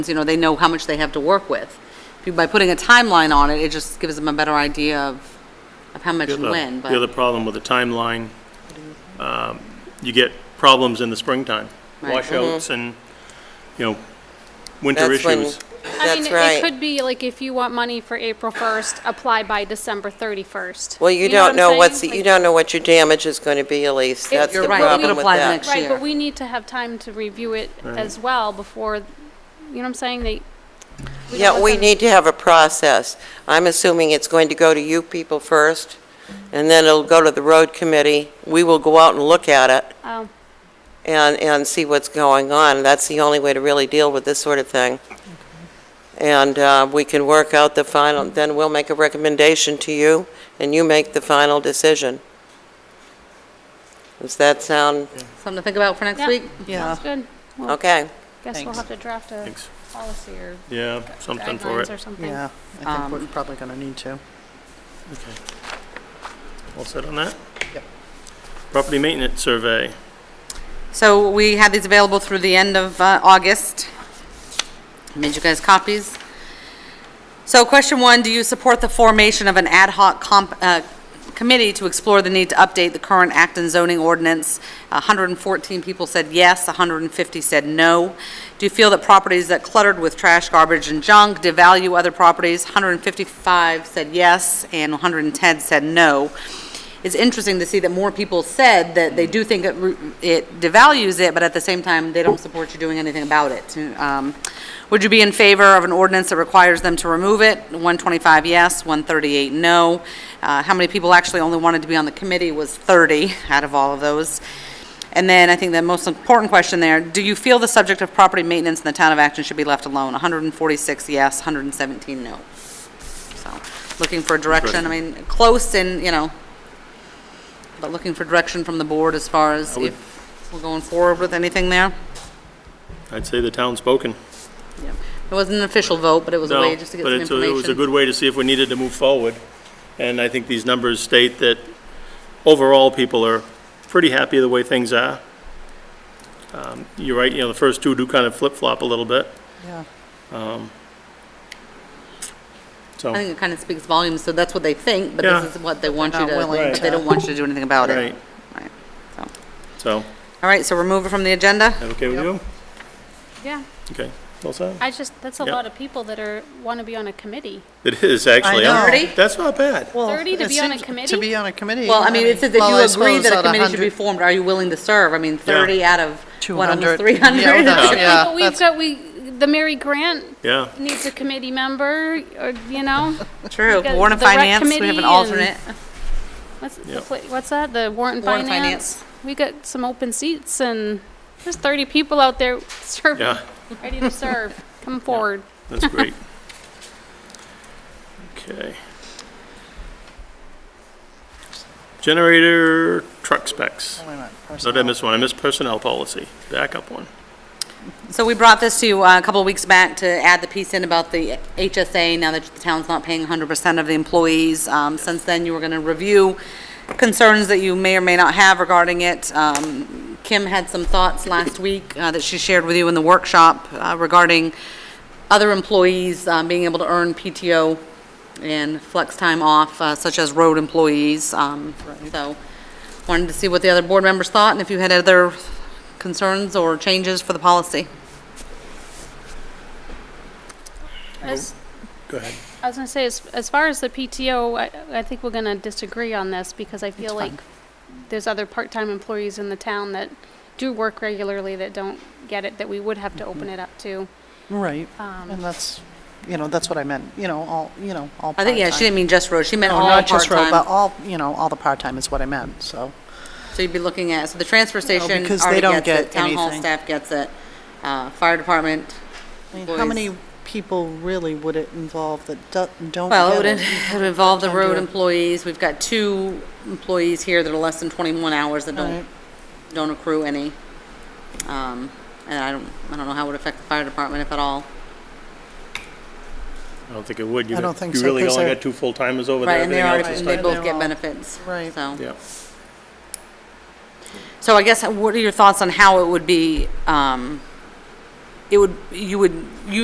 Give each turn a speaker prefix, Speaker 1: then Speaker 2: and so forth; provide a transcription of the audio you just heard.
Speaker 1: you know, they know how much they have to work with. If you- By putting a timeline on it, it just gives them a better idea of, of how much and when,
Speaker 2: The other
Speaker 1: but,
Speaker 2: problem with the timeline, um, you get problems in the springtime,
Speaker 1: Right. Mm-hmm.
Speaker 2: washouts and, you know, winter
Speaker 3: That's when-
Speaker 2: issues.
Speaker 4: I
Speaker 3: That's
Speaker 4: mean, it
Speaker 3: right.
Speaker 4: could be like if you want money for April 1st, apply by December 31st.
Speaker 3: Well, you
Speaker 4: know what
Speaker 3: don't
Speaker 4: I'm
Speaker 3: know
Speaker 4: saying?
Speaker 3: what's,
Speaker 4: Like-
Speaker 3: you don't know what your damage is going to be, Elise. That's
Speaker 1: You're
Speaker 3: the
Speaker 1: right, you could
Speaker 3: problem with
Speaker 1: apply the
Speaker 3: that.
Speaker 1: next
Speaker 4: Right,
Speaker 1: year.
Speaker 4: but we need to have time to review it as well before, you know what I'm saying? They. don't
Speaker 3: Yeah,
Speaker 4: let
Speaker 3: we
Speaker 4: them-
Speaker 3: need to have a process. I'm assuming it's going to go to you people first, and then it'll go to the road committee. We will go out and look at it
Speaker 4: Oh,
Speaker 3: and, and see what's going on. That's the only way to really deal with this sort of thing. And uh, we can work out the final, then we'll make a recommendation to you, and you make the final decision. Does that sound,
Speaker 1: something to think about for next
Speaker 4: Yeah.
Speaker 1: week?
Speaker 5: Yeah,
Speaker 4: that's good. Well,
Speaker 3: okay?
Speaker 4: Guess we'll
Speaker 5: Thanks.
Speaker 4: have to draft a
Speaker 2: Thanks.
Speaker 4: policy or
Speaker 2: Yeah, something for
Speaker 4: guidelines or
Speaker 2: it.
Speaker 4: something.
Speaker 5: yeah, I think
Speaker 1: Um,
Speaker 5: we're probably going to need to.
Speaker 2: All set on that?
Speaker 5: Yep.
Speaker 2: Property maintenance survey.
Speaker 1: So we had these available through the end of uh, August. Made you guys copies. So question one, do you support the formation of an ad hoc comp, uh, committee to explore the need to update the current Acton zoning ordinance? 114 people said yes, 150 said no. Do you feel that properties that cluttered with trash, garbage, and junk devalue other properties? 155 said yes, and 110 said no. It's interesting to see that more people said that they do think it re- it devalues it, but at the same time, they don't support you doing anything about it. Um, Would you be in favor of an ordinance that requires them to remove it? 125 yes, 138 no. Uh, How many people actually only wanted to be on the committee was 30 out of all of those. And then I think the most important question there, do you feel the subject of property maintenance in the town of Acton should be left alone? 146 yes, 117 no. So, looking for direction, I mean, close and, you know, but looking for direction from the board as far as
Speaker 2: would-
Speaker 1: if we're going forward with anything there?
Speaker 2: I'd say the town's spoken.
Speaker 1: It wasn't an official vote, but it was a
Speaker 2: No,
Speaker 1: way just to get some
Speaker 2: But it's a- it was a
Speaker 1: information.
Speaker 2: good way to see if we needed to move forward. And I think these numbers state that overall, people are pretty happy the way things are. Um, You're right, you know, the first two do kind of flip-flop a little bit, Um,
Speaker 5: Yeah.
Speaker 2: so.
Speaker 1: I think it kind of speaks volumes, so that's what they think, but
Speaker 2: Yeah.
Speaker 1: this is what they want you
Speaker 5: not
Speaker 1: to,
Speaker 5: willing
Speaker 1: but they don't want you to do anything about it.
Speaker 2: Right.
Speaker 1: Right, so.
Speaker 2: So,
Speaker 1: All right, so remove it from the agenda?
Speaker 2: that okay with you?
Speaker 4: Yeah,
Speaker 2: Okay, all set?
Speaker 4: I just, that's a
Speaker 2: Yep.
Speaker 4: lot of people that are, want to be on a committee.
Speaker 2: It is, actually.
Speaker 5: know.
Speaker 2: I'm-
Speaker 1: Thirty?
Speaker 2: That's not bad.
Speaker 5: Well,
Speaker 4: 30 to
Speaker 5: it
Speaker 4: be on a
Speaker 5: seems- To
Speaker 4: committee?
Speaker 5: be on a committee.
Speaker 1: Well, I mean, it says that
Speaker 5: well, I
Speaker 1: you agree
Speaker 5: suppose
Speaker 1: that a
Speaker 5: out of
Speaker 1: committee should be
Speaker 5: 100
Speaker 1: formed, are you willing to serve? I mean, 30 out of, what,
Speaker 5: 200.
Speaker 1: almost
Speaker 5: Yeah,
Speaker 1: 300?
Speaker 5: that's- yeah,
Speaker 4: But we've
Speaker 5: that's-
Speaker 4: got, we, the Mary Grant
Speaker 2: Yeah,
Speaker 4: needs a committee member, or, you know?
Speaker 1: True,
Speaker 4: We got
Speaker 1: Warren and
Speaker 4: the rec
Speaker 1: Finance, we have
Speaker 4: committee
Speaker 1: an
Speaker 4: and-
Speaker 1: alternate.
Speaker 4: What's, the
Speaker 2: Yep.
Speaker 4: pla- what's that? The warrant and
Speaker 1: Warrant
Speaker 4: finance?
Speaker 1: and Finance.
Speaker 4: We got some open seats and there's 30 people out there serving,
Speaker 2: yeah,
Speaker 4: ready to serve. Come forward.
Speaker 2: that's great. Okay. Generator truck specs.
Speaker 5: Wait a minute,
Speaker 2: No, did I
Speaker 5: personnel.
Speaker 2: miss one? I missed personnel policy. Backup one.
Speaker 1: So we brought this to you uh, a couple of weeks back to add the piece in about the HSA, now that the town's not paying 100% of the employees. Um, Since then, you were going to review concerns that you may or may not have regarding it. Um, Kim had some thoughts last week uh, that she shared with you in the workshop uh, regarding other employees um, being able to earn PTO and flex time off, uh, such as road employees. Um, So wanted to see what the other board members thought and if you had other concerns or changes for the policy.
Speaker 4: As-
Speaker 2: Oh, Go ahead.
Speaker 4: I was going to say, as, as far as the PTO, I, I think we're going to disagree on this because I feel like there's other part-time employees in the town that do work regularly that don't get it, that we would have to
Speaker 2: Mm-hmm.
Speaker 4: open it up to.
Speaker 5: Right,
Speaker 1: Um,
Speaker 5: and that's, you know, that's what I meant, you know, all, you know, all
Speaker 1: I think, yeah, she
Speaker 5: part-time.
Speaker 1: didn't mean just road, she meant
Speaker 5: No,
Speaker 1: all
Speaker 5: not just road, But
Speaker 1: part-time.
Speaker 5: all, you know, all the part-time is what I meant, so.
Speaker 1: So you'd be looking at, so the transfer station
Speaker 5: because they
Speaker 1: already
Speaker 5: don't
Speaker 1: gets it,
Speaker 5: get
Speaker 1: town hall
Speaker 5: anything.
Speaker 1: staff gets it, uh, fire department.
Speaker 5: I mean, How
Speaker 1: employees.
Speaker 5: many people really would it involve that do- don't
Speaker 1: Well, it
Speaker 5: get
Speaker 1: would
Speaker 5: it?
Speaker 1: it would involve the
Speaker 5: Part-time
Speaker 1: road
Speaker 5: doing-
Speaker 1: employees, we've got two employees here that are less than 21 hours that don't,
Speaker 5: Right.
Speaker 1: don't accrue any. Um, And I don't, I don't know how it would affect the fire department if at all.
Speaker 2: I don't think it would. You
Speaker 5: I
Speaker 2: got-
Speaker 5: don't think
Speaker 2: You
Speaker 5: so,
Speaker 2: really
Speaker 5: 'cause
Speaker 2: only
Speaker 5: they're-
Speaker 2: got two full-timers over there.
Speaker 1: Right, and they
Speaker 2: Everything
Speaker 1: are,
Speaker 2: else is
Speaker 1: and they
Speaker 5: tied.
Speaker 1: both get
Speaker 5: They're all-
Speaker 1: benefits.
Speaker 5: Right.
Speaker 1: So.
Speaker 2: Yeah.
Speaker 1: So I guess, what are your thoughts on how it would be, um, it would, you would use